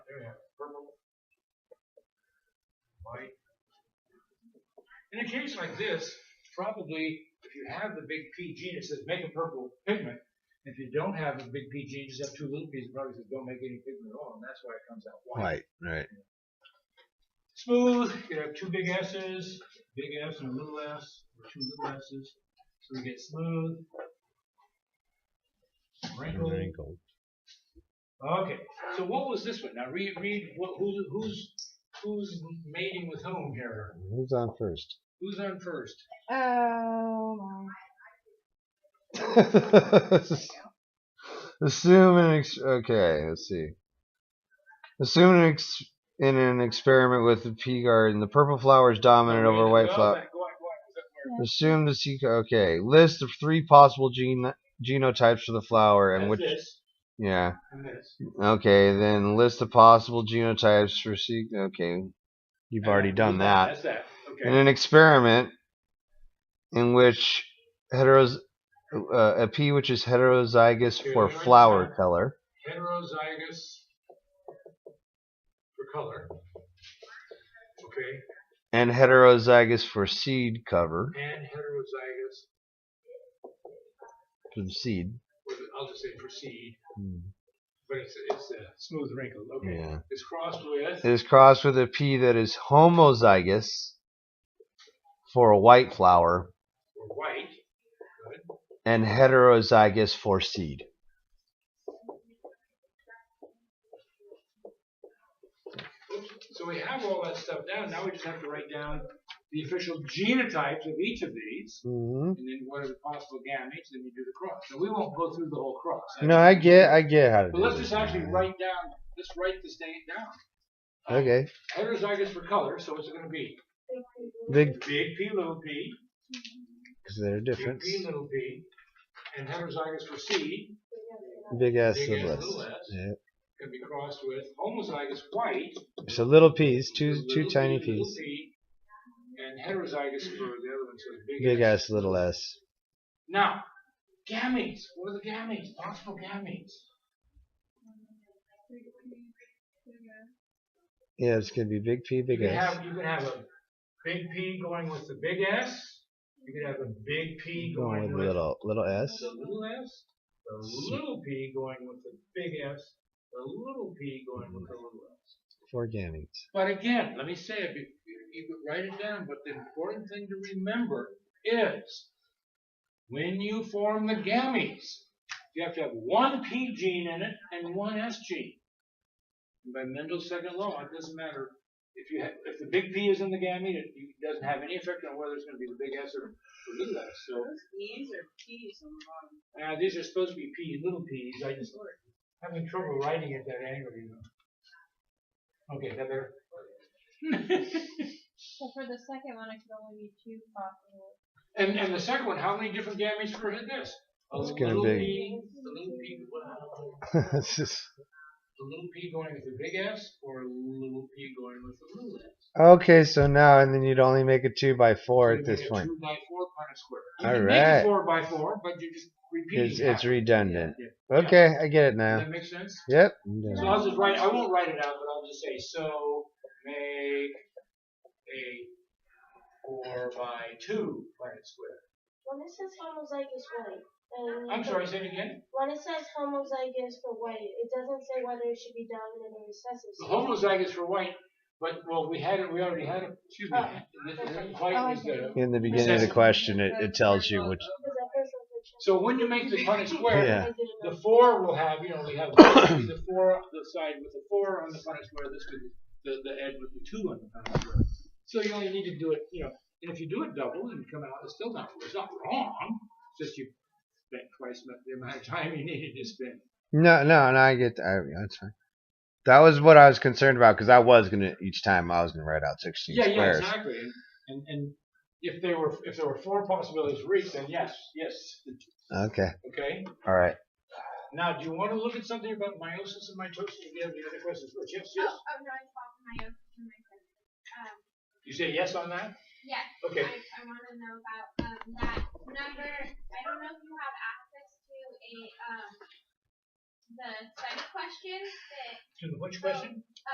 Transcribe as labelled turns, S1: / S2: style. S1: There we have it. purple, white.
S2: In a case like this, probably if you have the big P gene, it says make a purple pigment. If you don't have a big P gene, you just have two little P's, it probably says don't make any pigment at all, and that's why it comes out white.
S3: White, right.
S2: Smooth, you have two big S's, big S and a little S, or two little S's, so we get smooth. Wrinkled.
S3: Wrinkled.
S2: Okay, so what was this one? Now read, read, what, who's, who's, who's mating with whom here?
S3: Who's on first?
S2: Who's on first?
S4: Oh my.
S3: Assume an ex- okay. Let's see. Assume an ex- in an experiment with the pea garden, the purple flower is dominant over white
S2: Go
S3: flower.
S2: back, go back, go back. Is that where-
S3: Assume the sequ- okay. List the three possible gene genotypes for the flower and
S2: that's
S3: which
S2: this,
S3: yeah.
S2: and this.
S3: Okay, then list the possible genotypes for seek. Okay, you've already
S2: Uh,
S3: done that.
S2: That's that. Okay.
S3: in an experiment in which heteros uh, a pea which is heterozygous for flower color
S2: heterozygous for color. Okay,
S3: and heterozygous for seed cover
S2: and heterozygous.
S3: for the seed.
S2: Or the- I'll just say proceed,
S3: Hmm.
S2: but it's it's a smooth wrinkle. Okay,
S3: Yeah.
S2: it's crossed with.
S3: It is crossed with a pea that is homozygous for a white flower
S2: or white. Good.
S3: and heterozygous for seed.
S2: So we have all that stuff down. Now we just have to write down the official genotypes of each of these,
S3: Mm-hmm.
S2: and then what are the possible gametes, and you do the cross. So we won't go through the whole cross.
S3: No, I get, I get how to do
S2: But let's
S3: this
S2: just actually
S3: now.
S2: write down. Let's write this thing down.
S3: Okay,
S2: Heterozygous for color, so what's it going to be?
S3: big
S2: Big P, little p,
S3: because there are
S2: big
S3: difference.
S2: P, little p, and heterozygous for C
S3: Big S
S2: Big
S3: and
S2: S,
S3: less.
S2: little s.
S3: Yeah.
S2: can be crossed with homozygous white,
S3: So little peas, two
S2: little
S3: two
S2: p,
S3: tiny
S2: little
S3: peas.
S2: p, and heterozygous for the other one, so it's big,
S3: Big
S2: S.
S3: S, little S.
S2: Now, gametes. What are the gametes? Possible gametes.
S3: Yeah, it's gonna be big P, big
S2: you can
S3: S.
S2: have you can have a big P going with the big S. You can have a big P
S3: Going with
S2: with
S3: little little S.
S2: The little s, the little p going with the big s, the little p going with the little s.
S3: Four gametes.
S2: But again, let me say it, you, you- you could write it down, but the important thing to remember is when you form the gametes, you have to have one p gene in it and one s gene. And by Mendel's second law, it doesn't matter if you have, if the big P is in the gamete, it it doesn't have any effect on whether it's going to be the big S or the little s. So
S4: Those E's or P's on the bottom.
S2: now, these are supposed to be peas, little peas. I just having trouble writing at that angle, you know. Okay, that there.
S5: So for the second one, it could only be two possible.
S2: and and the second one, how many different gametes for this? A
S3: It's gonna
S2: little
S3: be-
S2: pea, the little pea, wow.
S3: It's just-
S2: the little pea going with the big S, or a little pea going with the little S.
S3: okay, so now and then you'd only make a two by four
S2: So
S3: at
S2: you make
S3: this
S2: a
S3: point.
S2: Two by four upon a square. You
S3: All
S2: can make a
S3: right.
S2: four by four, but you're just repeating.
S3: It's it's
S2: half.
S3: redundant.
S2: Yeah.
S3: Okay, I get it
S2: Does
S3: now.
S2: that make sense?
S3: Yep. I'm
S2: So
S3: done.
S2: I'll just write, I won't write it out, but I'll just say, so make a four by two planet square.
S6: When it says homozygous white, and
S2: I'm sorry, say it again.
S6: When it says homozygous for white, it doesn't say whether it should be dominant or recessive.
S2: The homozygous for white, but, well, we had it, we already had it, excuse me. This is-
S5: Oh,
S2: White was the,
S3: In the beginning of the question, it, it tells you which.
S6: Because at first I was like,
S2: so when you make the planet square,
S3: Yeah.
S6: I didn't know.
S2: The four will have, you know, we have the four, the side with the four on the front square, this with the, the edge with the two on the front square. So you only need to do it, you know, and if you do it double and come out, it's still not, it's not wrong, it's just you spent twice mu- the amount of time you needed to spend.
S3: No, no, no. I get. I, that's fine. That was what I was concerned about because I was gonna each time I was gonna write out sixteen
S2: Yeah, yeah,
S3: squares.
S2: exactly, And- and, and if there were, if there were four possibilities for each, then yes, yes,
S3: Okay.
S2: okay?
S3: All right.
S2: Now, do you want to look at something about meiosis and mitosis, do you have any other questions first? Yes, yes,
S5: Oh, no, I called my own from my friend. Um,
S2: you say yes on that?
S5: yes,
S2: Okay.
S5: I, I want to know about um, that number. I don't know if you have access to a um, the site question that
S2: To the which question?